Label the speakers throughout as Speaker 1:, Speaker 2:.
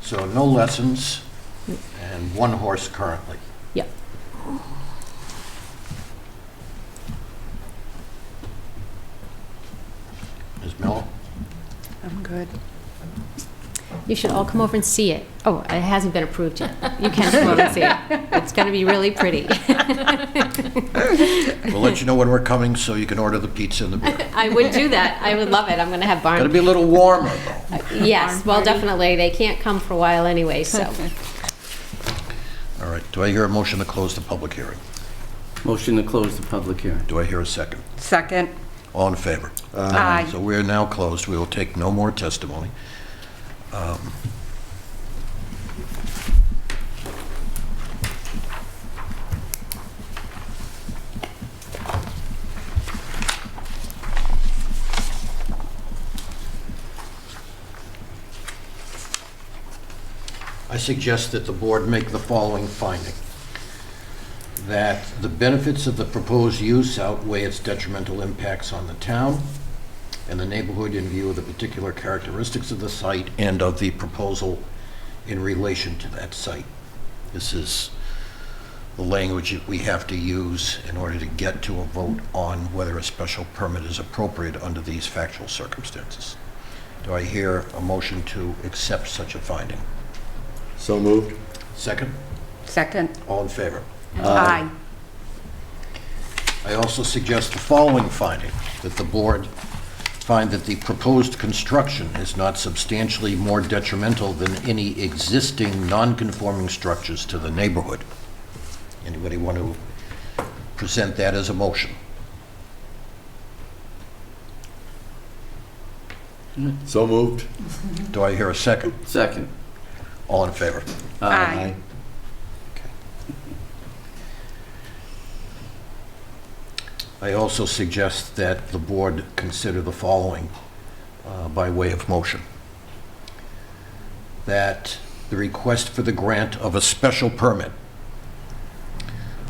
Speaker 1: So no lessons and one horse currently.
Speaker 2: Yep.
Speaker 1: Ms. Miller?
Speaker 3: I'm good.
Speaker 2: You should all come over and see it. Oh, it hasn't been approved yet. You can come over and see it. It's going to be really pretty.
Speaker 1: We'll let you know when we're coming so you can order the pizza and the beer.
Speaker 2: I would do that. I would love it. I'm going to have
Speaker 1: Gotta
Speaker 2: barn.
Speaker 1: be a little warmer, though.
Speaker 2: Yes,
Speaker 3: Barn
Speaker 2: well,
Speaker 3: party.
Speaker 2: definitely. They can't come for a while anyway, so.
Speaker 1: All right, do I hear a motion to close the public hearing?
Speaker 4: Motion to close the public hearing.
Speaker 1: Do I hear a second?
Speaker 3: Second.
Speaker 1: All in favor?
Speaker 3: Aye.
Speaker 1: So we are now closed. We will take no more testimony. Um, I suggest that the board make the following finding that the benefits of the proposed use outweigh its detrimental impacts on the town and the neighborhood in view of the particular characteristics of the site and of the proposal in relation to that site. This is the language that we have to use in order to get to a vote on whether a special permit is appropriate under these factual circumstances. Do I hear a motion to accept such a finding?
Speaker 5: So moved.
Speaker 1: Second?
Speaker 3: Second.
Speaker 1: All in favor?
Speaker 3: Aye.
Speaker 1: I also suggest the following finding, that the board find that the proposed construction is not substantially more detrimental than any existing non-conforming structures to the neighborhood. Anybody want to present that as a motion?
Speaker 5: So moved.
Speaker 1: Do I hear a second?
Speaker 4: Second.
Speaker 1: All in favor?
Speaker 3: Aye.
Speaker 1: I also suggest that the board consider the following uh, by way of motion. That the request for the grant of a special permit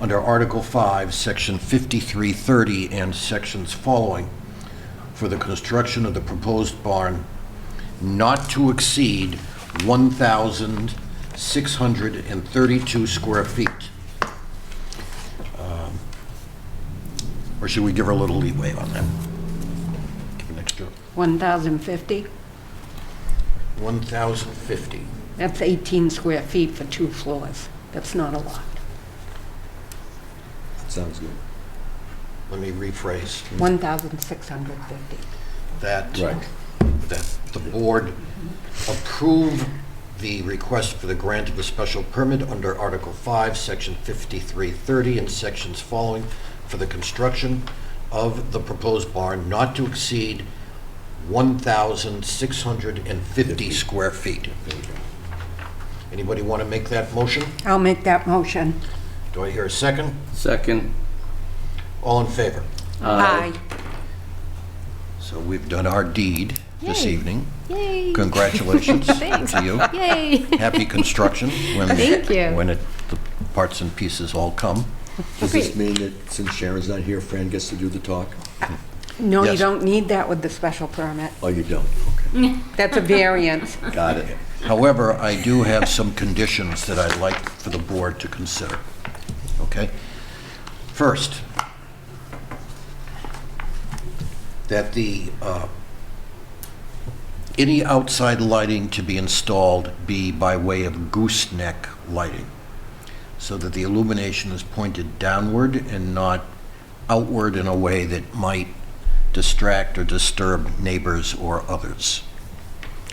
Speaker 1: under Article 5, Section 5330 and sections following for the construction of the proposed barn not to exceed 1,632 square feet. Or should we give her a little leeway on that? Give an extra
Speaker 3: 1,050.
Speaker 1: 1,050.
Speaker 3: That's 18 square feet for two floors. That's not a lot.
Speaker 5: Sounds good.
Speaker 1: Let me rephrase
Speaker 3: Mm. 1,650.
Speaker 1: that.
Speaker 5: Right.
Speaker 1: That the board approve the request for the grant of a special permit under Article 5, Section 5330, and sections following for the construction of the proposed barn not to exceed 1,650 square feet. Anybody want to make that motion?
Speaker 3: I'll make that motion.
Speaker 1: Do I hear a second?
Speaker 4: Second.
Speaker 1: All in favor?
Speaker 3: Aye.
Speaker 1: So we've done our deed this
Speaker 2: Yay.
Speaker 1: evening.
Speaker 2: Yay!
Speaker 1: Congratulations
Speaker 2: Thanks.
Speaker 1: to you.
Speaker 2: Yay!
Speaker 1: Happy construction when,
Speaker 2: Thank you.
Speaker 1: when it, the parts and pieces all come.
Speaker 5: Does this mean that since Sharon's not here, Fran gets to do the talk?
Speaker 3: No, you
Speaker 1: Yes.
Speaker 3: don't need that with the special permit.
Speaker 5: Oh, you don't? Okay.
Speaker 3: That's a variance.
Speaker 5: Got it.
Speaker 1: However, I do have some conditions that I'd like for the board to consider. Okay? First, that the, uh, any outside lighting to be installed be by way of gooseneck lighting, so that the illumination is pointed downward and not outward in a way that might distract or disturb neighbors or others.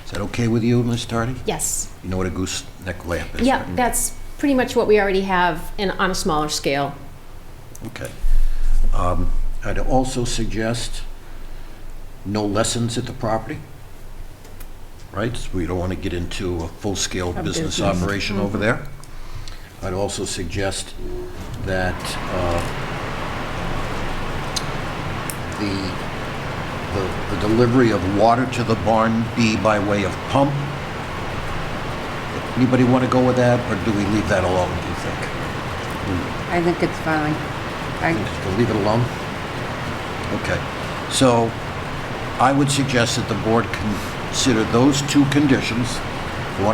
Speaker 1: Is that okay with you, Ms. Tardy?
Speaker 2: Yes.
Speaker 1: You know what a gooseneck lamp is?
Speaker 2: Yeah,
Speaker 1: right?
Speaker 2: that's pretty much what we already have and on a smaller scale.
Speaker 1: Okay. Um, I'd also suggest no lessons at the property, right? We don't want to get into a full-scale business operation over there. I'd also suggest that uh, the, the the delivery of water to the barn be by way of pump. Anybody want to go with that, or do we leave that alone, do you think?
Speaker 3: I think it's fine. I,
Speaker 1: Just leave it alone? Okay. So I would suggest that the board consider those two conditions,